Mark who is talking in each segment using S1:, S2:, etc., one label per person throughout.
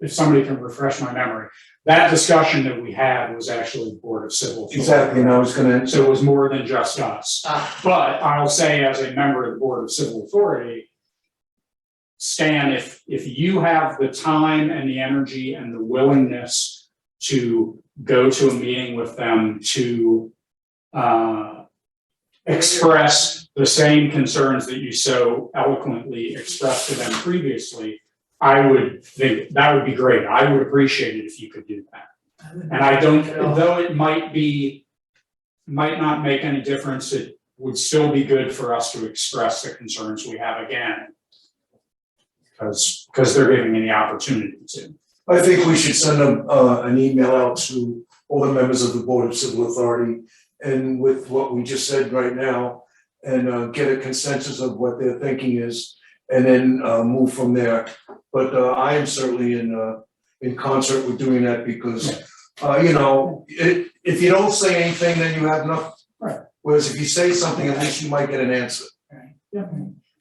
S1: if somebody can refresh my memory, that discussion that we had was actually Board of Civil. Authority.
S2: Exactly, and I was gonna,
S1: So it was more than just us.
S3: Ah.
S1: But I'll say as a member of the Board of Civil Authority, Stan, if, if you have the time and the energy and the willingness to go to a meeting with them to uh, express the same concerns that you so eloquently expressed to them previously, I would think that would be great. I would appreciate it if you could do that. And I don't, though it might be, might not make any difference, it would still be good for us to express the concerns we have again. Because, because they're giving me the opportunity to.
S2: I think we should send a, uh, an email out to all the members of the Board of Civil Authority and with what we just said right now, and, uh, get a consensus of what their thinking is, and then, uh, move from there. But, uh, I am certainly in, uh, in concert with doing that because, uh, you know, it, if you don't say anything, then you have nothing.
S1: Right.
S2: Whereas if you say something, at least you might get an answer.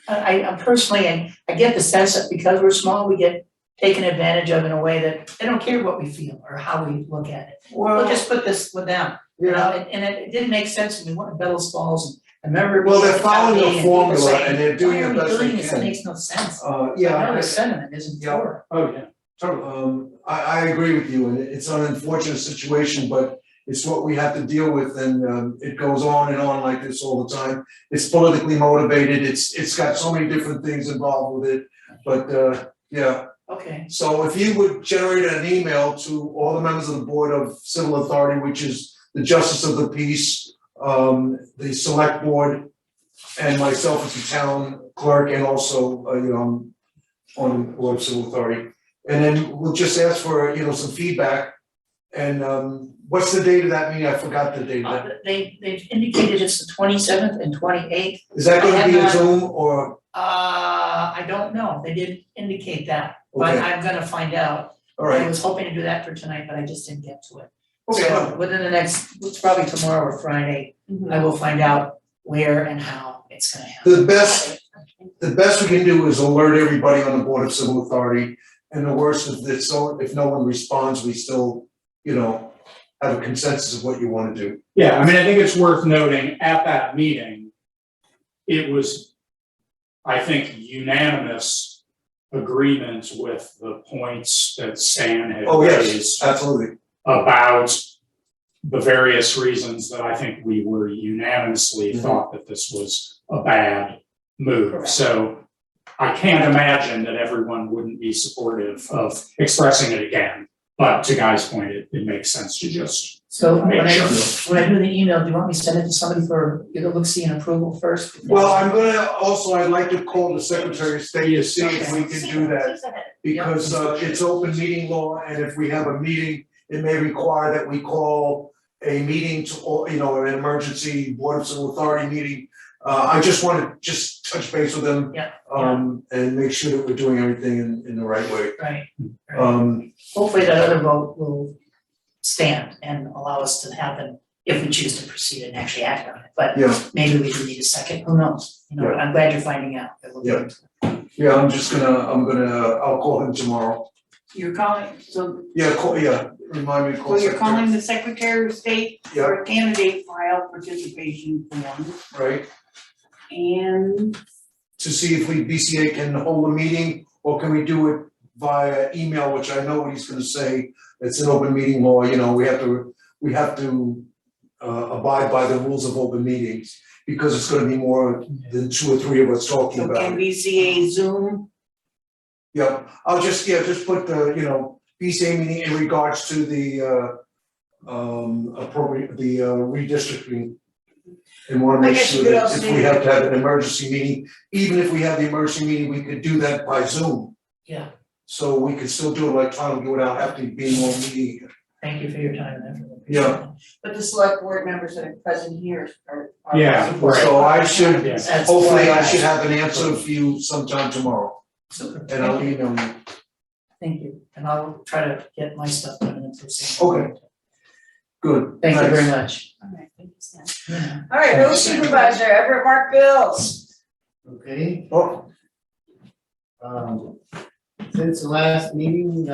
S3: I, I personally, and I get the sense that because we're small, we get taken advantage of in a way that they don't care what we feel or how we look at it. We'll just put this with them, you know, and, and it, it didn't make sense to me, what Bellas Falls, and I remember.
S2: Well, they're
S3: being at that
S2: following a
S3: meeting and people
S2: formula
S3: saying,
S2: and they're doing the best
S3: Why are we
S2: they
S3: doing this,
S2: can."
S3: it makes no sense.
S2: Uh,
S3: I
S2: yeah.
S3: know
S2: I-
S3: the sentiment isn't
S2: Yeah.
S3: for,
S1: Oh, yeah.
S2: Totally. Um, I, I agree with you, and it- it's an unfortunate situation, but it's what we have to deal with, and, um, it goes on and on like this all the time. It's politically motivated, it's, it's got so many different things involved with it, but, uh, yeah.
S3: okay,
S2: So if you would generate an email to all the members of the Board of Civil Authority, which is the Justice of the Peace, um, the Select Board, and myself as the town clerk, and also, uh, you know, I'm on the Board of Civil Authority. And then we'll just ask for, you know, some feedback, and, um, what's the date of that meeting? I forgot the date of
S3: Uh,
S2: that.
S3: they, they've indicated it's the twenty seventh and twenty eighth,
S2: Is that
S3: I
S2: gonna
S3: have
S2: be a
S3: not-
S2: Zoom or,
S3: uh, I don't know, they didn't indicate that, but
S2: okay,
S3: I'm gonna find out.
S2: all
S3: I
S2: right,
S3: was hoping to do that for tonight, but I just didn't get to it.
S2: okay,
S3: So within the next, it's probably tomorrow or Friday, I will find out where and how it's gonna happen.
S2: the best the best we can do is alert everybody on the Board of Civil Authority. And the worst is that so if no one responds, we still, you know, have a consensus of what you wanna do.
S1: Yeah, I mean, I think it's worth noting at that meeting, it was, I think, unanimous agreement with the points that Stan had
S2: Oh, yes.
S1: raised
S2: Absolutely.
S1: about the various reasons that I think we were unanimously
S2: Mhm.
S1: thought that this was a bad move.
S3: Correct.
S1: So I can't imagine that everyone wouldn't be supportive of expressing it again. But to Guy's point, it, it makes sense to just
S3: So when
S1: make
S3: I,
S1: sure.
S3: when I do the email, do you want me to send it to somebody for, you to look, see an approval first?
S2: Well, I'm gonna, also, I'd like to call the Secretary of State to see if we can do that. Because uh it's open meeting law and if we have a meeting, it may require that we call a meeting to, all you know, an emergency Board of Civil Authority meeting. Uh I just wanna just touch base with them.
S3: Yeah,
S2: Um and make sure that we're doing everything in in the right way.
S3: Right,
S2: Um
S3: hopefully that other vote will stand and allow us to happen if we choose to proceed and actually act on it, but
S2: yeah,
S3: maybe we do need a second, who knows? You know,
S2: Yeah.
S3: I'm glad you're finding out. I look
S2: Yeah.
S3: forward to it.
S2: yeah, I'm just gonna, I'm gonna, I'll call him tomorrow.
S4: You're calling, so,
S2: Yeah, call, yeah, remind me to call
S4: so you're
S2: secretary.
S4: calling the Secretary of State
S2: Yeah,
S4: for candidate file participation form
S2: right,
S4: and
S2: to see if we BCA can hold a meeting or can we do it via email, which I know what he's gonna say. It's an open meeting law, you know, we have to, we have to uh abide by the rules of open meetings because it's gonna be more than two or three of us talking
S4: so
S2: about it.
S4: can BCA Zoom,
S2: Yeah, I'll just, yeah, just put the, you know, BCA meeting in regards to the uh um appropriate, the uh redistricting. And wanna
S4: I
S2: make
S4: guess you
S2: sure
S4: could
S2: that
S4: also
S2: if
S4: do-
S2: we have to have an emergency meeting, even if we have the emergency meeting, we could do that by Zoom.
S3: Yeah.
S2: So we could still do it electronically without having to be in one meeting.
S3: Thank you for your time and effort.
S2: Yeah.
S4: but the select board members that are present here are. are-
S1: Yeah, right.
S2: So I should,
S1: Yeah.
S3: That's
S2: hopefully I
S3: why
S2: should have an answer for you sometime tomorrow
S3: Super,
S2: and I'll
S3: thank you,
S2: email you.
S3: thank you, and I'll try to get my stuff done in the first.
S2: Okay. Good.
S3: Thank you
S2: thanks.
S3: very much.
S4: All right, thank you, Stan.
S3: Yeah.
S4: All right, road supervisor, Everett Mark Bills.
S5: Okay,
S2: Oh,
S5: um, since the last meeting,